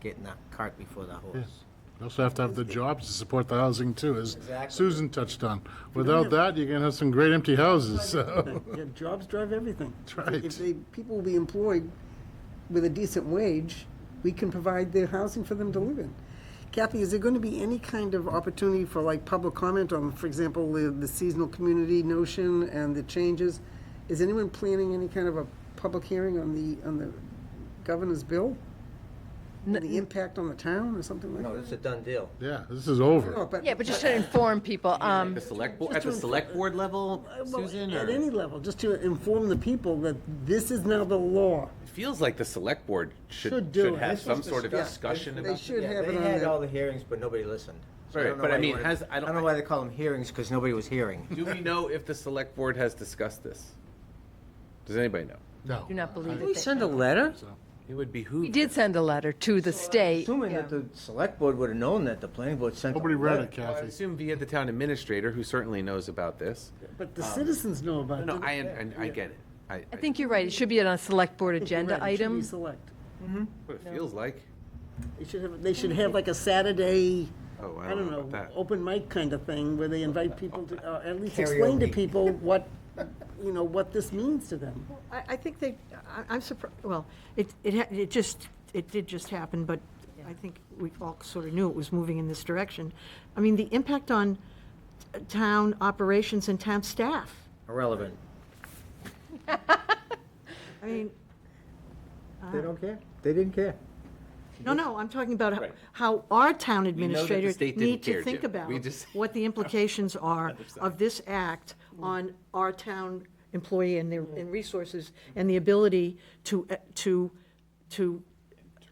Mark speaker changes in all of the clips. Speaker 1: getting that cart before the horse.
Speaker 2: You also have to have the jobs to support the housing too, as
Speaker 1: Exactly.
Speaker 2: Susan touched on. Without that, you're gonna have some great empty houses, so.
Speaker 3: Yeah, Jobs drive everything.
Speaker 2: That's right.
Speaker 3: If they, people will be employed with a decent wage, we can provide their housing for them to live in. Kathy, is there going to be any kind of opportunity for like public comment on, for example, the the seasonal community notion and the changes? Is anyone planning any kind of a public hearing on the, on the governor's bill? And The impact on the town or something like?
Speaker 1: No, this is a done deal.
Speaker 2: Yeah, this is
Speaker 3: No,
Speaker 2: over.
Speaker 3: but
Speaker 4: Yeah, but just to inform people, um,
Speaker 5: The select, board at the select board level,
Speaker 3: Well,
Speaker 5: Susan,
Speaker 3: At
Speaker 5: or?
Speaker 3: any level, just to inform the people that this is now the law.
Speaker 5: It feels like the select board
Speaker 3: Should
Speaker 5: should,
Speaker 3: do
Speaker 5: should
Speaker 3: it.
Speaker 5: have
Speaker 3: This
Speaker 5: some
Speaker 1: was
Speaker 5: sort of
Speaker 1: discussed.
Speaker 5: discussion
Speaker 3: They
Speaker 5: about.
Speaker 3: should.
Speaker 1: Yeah,
Speaker 3: have it
Speaker 1: They
Speaker 3: on
Speaker 1: had
Speaker 3: there.
Speaker 1: all the hearings, but nobody listened. So
Speaker 5: Right,
Speaker 1: don't know
Speaker 5: but I
Speaker 1: why they
Speaker 5: mean,
Speaker 1: wanna-
Speaker 5: has- I
Speaker 1: I
Speaker 5: don't-
Speaker 1: don't know why they call them hearings, because nobody was hearing.
Speaker 5: Do we know if the select board has discussed this? Does anybody know?
Speaker 2: No.
Speaker 4: do not believe
Speaker 2: I-
Speaker 4: it. that-
Speaker 5: a letter? It would behoove.
Speaker 4: We did send a letter to the state.
Speaker 1: Assuming that the select board would have known that, the planning board sent. them a
Speaker 2: Nobody read
Speaker 1: letter.
Speaker 2: it,
Speaker 5: I would
Speaker 2: Kathy.
Speaker 5: assume via the town administrator, who certainly knows about this.
Speaker 3: But the citizens know about it.
Speaker 5: No, I, and I get it. I,
Speaker 4: I think you're right, it should be on a select board
Speaker 3: think you're
Speaker 4: agenda
Speaker 3: right, it should be
Speaker 4: item.
Speaker 3: select.
Speaker 5: what it feels like.
Speaker 3: They should have, they should have like a Saturday,
Speaker 5: Oh,
Speaker 3: I don't
Speaker 5: about
Speaker 3: know,
Speaker 5: that.
Speaker 3: open mic kind of thing where they invite people to, uh, at least explain to
Speaker 1: Karaoke.
Speaker 3: people what, you know, what this means to them.
Speaker 6: I, I think they, I- I'm surprised, well, it, it, ha- it just, it did just happen, but I think we all sort of knew it was moving in this direction. I mean, the impact on town operations and town staff,
Speaker 1: Irrelevant.
Speaker 6: I mean,
Speaker 1: They don't care. They didn't care.
Speaker 6: no, no, I'm talking about how-
Speaker 5: Right.
Speaker 6: how our town
Speaker 5: the
Speaker 6: administrators
Speaker 5: state didn't
Speaker 6: need
Speaker 5: care,
Speaker 6: to think
Speaker 5: Jim.
Speaker 6: about
Speaker 5: We just-
Speaker 6: what the implications are of this act on our town employee and their, and resources, and the ability to, eh, to, to,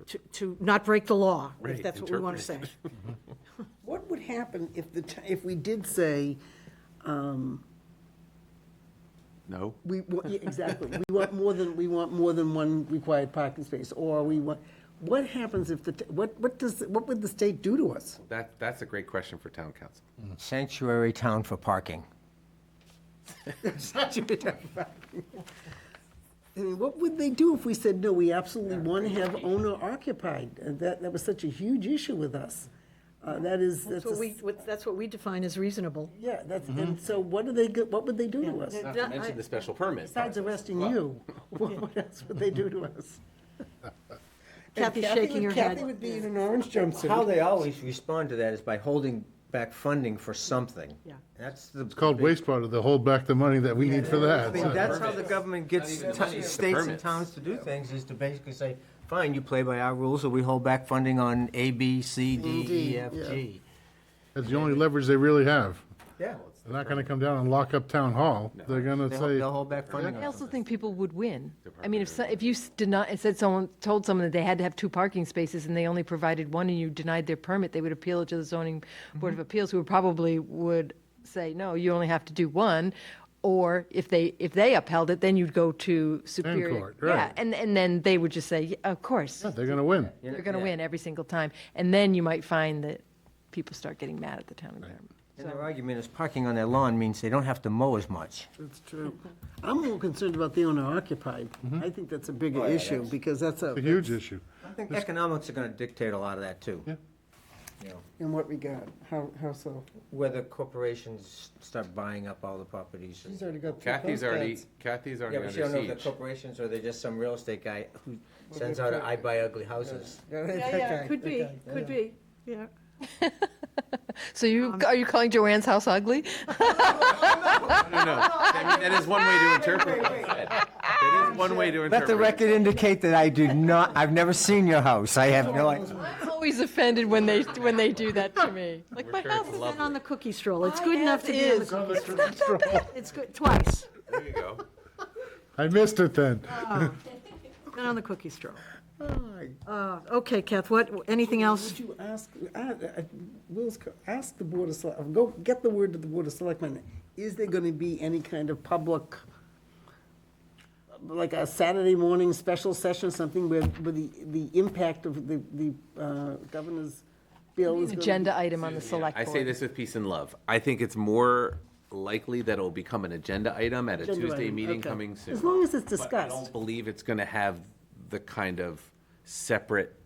Speaker 6: to- to not break the law, if
Speaker 5: Right,
Speaker 6: that's what we want to say.
Speaker 5: interpret.
Speaker 3: What would happen if the, t- if we did say,
Speaker 5: No?
Speaker 3: we, wa- yeah, exactly, we want more than, we want more than one required parking space, or we want, what happens if the, t- what, what does, what would the state do to us?
Speaker 5: That, that's a great question for town council.
Speaker 1: Sanctuary town for parking.
Speaker 3: I mean, what would they do if we said, no, we absolutely want to have owner occupied? And that, that was such a huge issue with us. Uh, that is, that's,
Speaker 6: That's
Speaker 3: a
Speaker 6: what we,
Speaker 3: s-
Speaker 6: what- that's what we define as reasonable.
Speaker 3: yeah, that's, and so what do they, go- what would they do to us?
Speaker 6: Yeah.
Speaker 5: Not to mention the special permit.
Speaker 3: Besides arresting you, what what else would they do to us? And
Speaker 6: Kathy's shaking her
Speaker 3: would-
Speaker 6: head.
Speaker 3: Kathy would be in an orange jumpsuit.
Speaker 1: How they always respond to that is by holding back funding for something.
Speaker 6: Yeah.
Speaker 1: That's the.
Speaker 2: It's called wastewater, they hold back the money that we need for
Speaker 1: I mean,
Speaker 2: that.
Speaker 1: that's how the government gets
Speaker 5: even the
Speaker 1: ti-
Speaker 5: money, it's the
Speaker 1: states and
Speaker 5: permits.
Speaker 1: towns to do things, is to basically say, fine, you play by our rules, or we hold back funding on A, B, C, D, E, F, G.
Speaker 2: That's the only leverage they really have.
Speaker 1: Yeah.
Speaker 2: They're not gonna come down and lock up town hall. They're gonna
Speaker 1: They'll they'll
Speaker 2: say,
Speaker 1: hold back funding.
Speaker 4: I also think people would win. I mean, if, so- if you s- deny, said someone, told someone that they had to have two parking spaces and they only provided one and you denied their permit, they would appeal it to the zoning board
Speaker 3: Mm-hmm.
Speaker 4: of appeals, who probably would say, no, you only have to do one. Or if they, if they upheld it, then you'd go to superior.
Speaker 2: court,
Speaker 4: Yeah,
Speaker 2: right.
Speaker 4: and, and then they would just say, "Yeah, of course,
Speaker 2: they're gonna win.
Speaker 4: you're going to win every single time. And then you might find that people start getting mad at the town environment.
Speaker 1: And their argument is parking on their lawn means they don't have to mow as much.
Speaker 3: That's true. I'm more concerned about the owner occupied. I think that's a bigger issue, because Oh, that's a,
Speaker 2: It's a huge issue.
Speaker 1: I think economics are gonna dictate a lot of that, too.
Speaker 2: Yeah.
Speaker 1: You know,
Speaker 3: in what regard? How, how so?
Speaker 1: Whether corporations start buying up all the properties.
Speaker 3: She's already got three
Speaker 5: Kathy's already,
Speaker 3: postcards.
Speaker 5: Kathy's
Speaker 1: Yeah,
Speaker 5: already
Speaker 1: but you don't know
Speaker 5: under
Speaker 1: if they're
Speaker 5: siege.
Speaker 1: corporations or they're just some real estate guy who sends out, a I buy ugly houses.
Speaker 6: Yeah, yeah, could be, could be, yeah.
Speaker 4: So you, are you calling Joanne's house ugly?
Speaker 5: No, no, I mean, that is one way to interpret what he said. That is one way to
Speaker 1: Let the
Speaker 5: interpret. it.
Speaker 1: record indicate that I do not, I've never seen your house. I have no idea.
Speaker 4: I'm always offended when they when they do that to me. Like my
Speaker 5: sure it's
Speaker 4: house is
Speaker 5: love.
Speaker 6: And on the cookie stroll, it's good enough to be on the
Speaker 4: is.
Speaker 6: cookie stroll. It's good, twice,
Speaker 5: There you go.
Speaker 2: I missed it then.
Speaker 6: been on the cookie stroll.
Speaker 3: Hi.
Speaker 6: Uh, Okay, Kath, what, anything else?
Speaker 3: Would you ask, I- I- Will's, co- ask the Board of Select, go get the word to the Board of Selectmen. Is there going to be any kind of public, like a Saturday morning special session, something where, where the, the impact of the, the uh, governor's bill is going to be?
Speaker 4: agenda item on the select
Speaker 5: I
Speaker 4: board.
Speaker 5: say this with peace and love. I think it's more likely that it'll become an agenda item at a
Speaker 3: Agenda
Speaker 5: Tuesday
Speaker 3: item,
Speaker 5: meeting
Speaker 3: okay.
Speaker 5: coming soon.
Speaker 3: As long as it's
Speaker 5: But I
Speaker 3: discussed.
Speaker 5: don't believe it's going to have the kind of separate